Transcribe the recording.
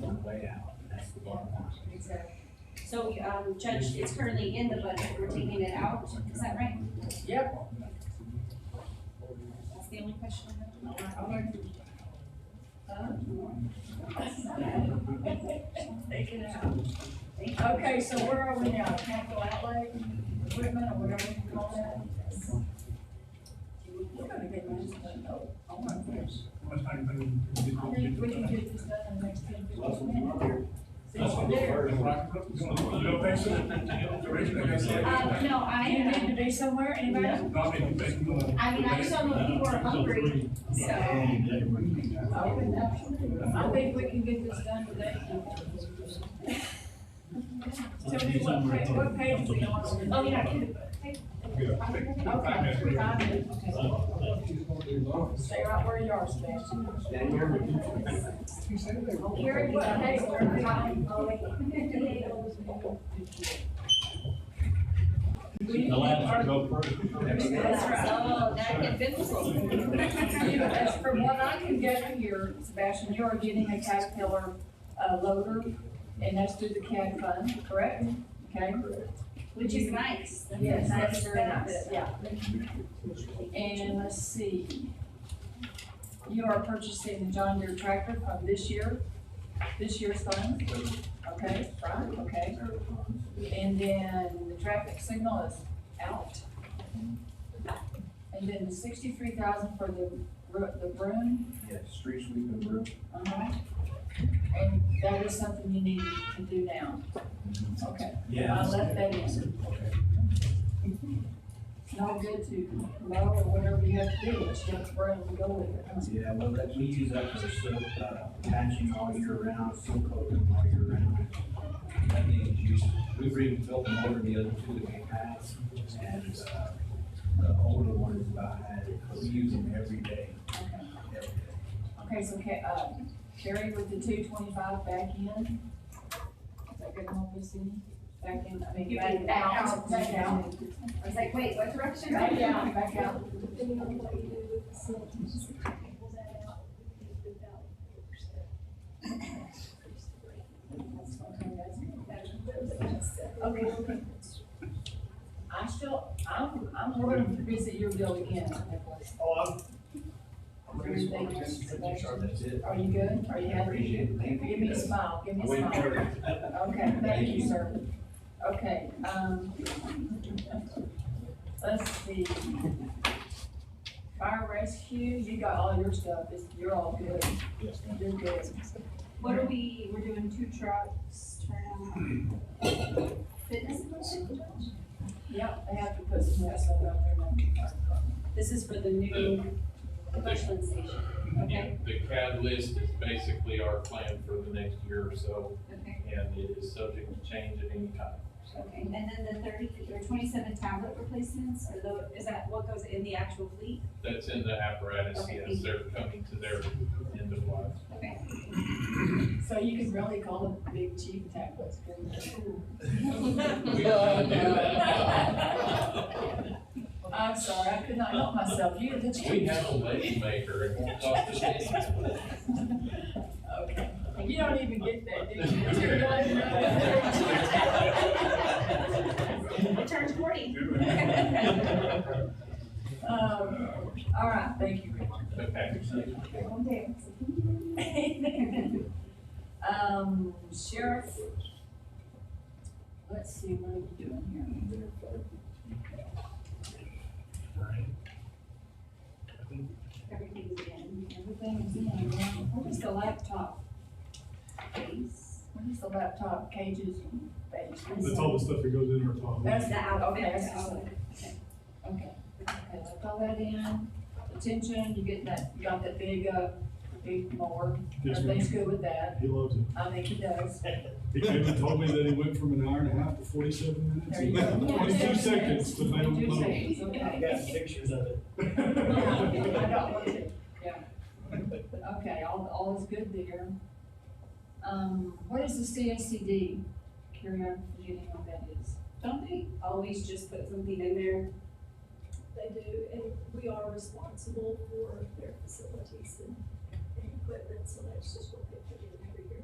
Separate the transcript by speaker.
Speaker 1: right?
Speaker 2: So, um, Judge, it's currently in the budget, we're taking it out, is that right?
Speaker 3: Yep.
Speaker 2: That's the only question I have.
Speaker 3: Taking it out. Okay, so where are we now? Capital outlay, equipment, or whatever you call that? We're gonna get this done, oh, oh my goodness. I think we can get this done in the next ten, fifteen minutes. Since we're there.
Speaker 2: Uh, no,
Speaker 3: You
Speaker 2: I,
Speaker 3: need to be somewhere, anybody?
Speaker 2: I mean, I just don't know if people are hungry, so.
Speaker 3: I think we can get this done today. So we, what page, what page we on?
Speaker 2: Oh, yeah, I can.
Speaker 3: Okay, five minutes, okay. Stay right where you are, Sebastian. You're, what, hey, we're fine. We-
Speaker 4: The last to go first.
Speaker 3: That's right.
Speaker 2: So, oh, that can
Speaker 3: You, as from what I can gather here, Sebastian, you are getting a Caterpillar, uh, loader, and that's through the CAD fund, correct? Okay?
Speaker 2: which is nice.
Speaker 3: Yes, that's
Speaker 2: very nice.
Speaker 3: Yeah. And let's see. You are purchasing the John Deere tractor from this year, this year's fund? Okay, right, okay. And then the traffic signal is out. And then the sixty-three thousand for the, ro- the broom,
Speaker 1: Yeah, street sweeping roof.
Speaker 3: uh-huh. And that is something you need to do now. Okay. I left that in. Not good to mow or whatever you have to do, it's just where to go with it. huh?
Speaker 1: Yeah, well, that, we use that for silk, uh, patching all year round, silk coating all year round. That means you, we've rebuilt them over the other two that we had, and, uh, the older one is about, had, we use them every day, every day.
Speaker 3: Okay, so, Ca- uh, Carrie with the two twenty-five back in. Is that good enough, Miss Cindy? Back in, I mean,
Speaker 2: You
Speaker 3: back
Speaker 2: mean
Speaker 3: out,
Speaker 2: out.
Speaker 3: back out.
Speaker 2: I was like, wait, what direction?
Speaker 3: Back out, back out.
Speaker 5: depending on what you do with the silk, you just pull that out, you do it without
Speaker 3: Okay, that's it.
Speaker 5: first.
Speaker 3: Okay. I still, I'm, I'm going to visit your bill again, Nicholas.
Speaker 1: Oh, I'm. I'm
Speaker 3: really small, just
Speaker 1: That's it.
Speaker 3: Are you good? Are you
Speaker 1: I
Speaker 3: happy?
Speaker 1: appreciate it, thank you.
Speaker 3: Give me a smile, give me a smile. Okay, thank you, sir. Okay, um, let's see. Fire rescue, you got all your stuff, it's, you're all good,
Speaker 1: Yes, ma'am.
Speaker 3: you're good.
Speaker 2: What are we, we're doing two trucks, turn on fitness equipment?
Speaker 3: Yep, they have to put some of that stuff out there now.
Speaker 2: This is for the new Bushland station,
Speaker 6: Yeah,
Speaker 2: okay?
Speaker 6: the CAD list is basically our plan for the next year or so,
Speaker 2: Okay,
Speaker 6: and it is subject to change at any time.
Speaker 2: okay, and then the thirty, or twenty-seven tablet replacements, or though, is that what goes in the actual fleet?
Speaker 6: That's in the apparatus, yes, they're coming to their end of life.
Speaker 2: Okay,
Speaker 3: So you can really call it Big Chief Tackless.
Speaker 6: We don't do that.
Speaker 3: I'm sorry, I could not help myself, you, the chief.
Speaker 6: We have a lady maker, it won't cost us anything.
Speaker 3: Okay, you don't even get that, do you?
Speaker 2: I turned forty.
Speaker 3: Um, all right, thank you, Rick.
Speaker 6: Okay.
Speaker 3: Um, sheriff. Let's see, what are we doing here?
Speaker 2: Everything's in,
Speaker 3: Everything's in, what is the laptop
Speaker 2: everything's,
Speaker 3: What is the laptop cages and things?
Speaker 7: That's all the stuff that goes in our top.
Speaker 3: That's
Speaker 2: the outfit.
Speaker 3: Okay, that's just- Okay, okay, so throw that in, attention, you get that, you got that big, uh, big mower,
Speaker 7: Yes, ma'am.
Speaker 3: everything's good with that,
Speaker 7: He loves it.
Speaker 3: I think he does.
Speaker 7: He came and told me that he went from an hour and a half to forty-seven minutes.
Speaker 3: There you go.
Speaker 7: Twenty-two seconds, but I don't
Speaker 3: Two
Speaker 7: know.
Speaker 3: seconds, okay.
Speaker 1: pictures of it.
Speaker 3: Yeah, I don't want to, yeah. Okay, all, all is good there. Um, what is the CACD? Carry on, forgetting what that is.
Speaker 2: Don't they always just put something in there?
Speaker 5: They do, and we are responsible for their facilities and, and equipment, so that's just what they put in every year.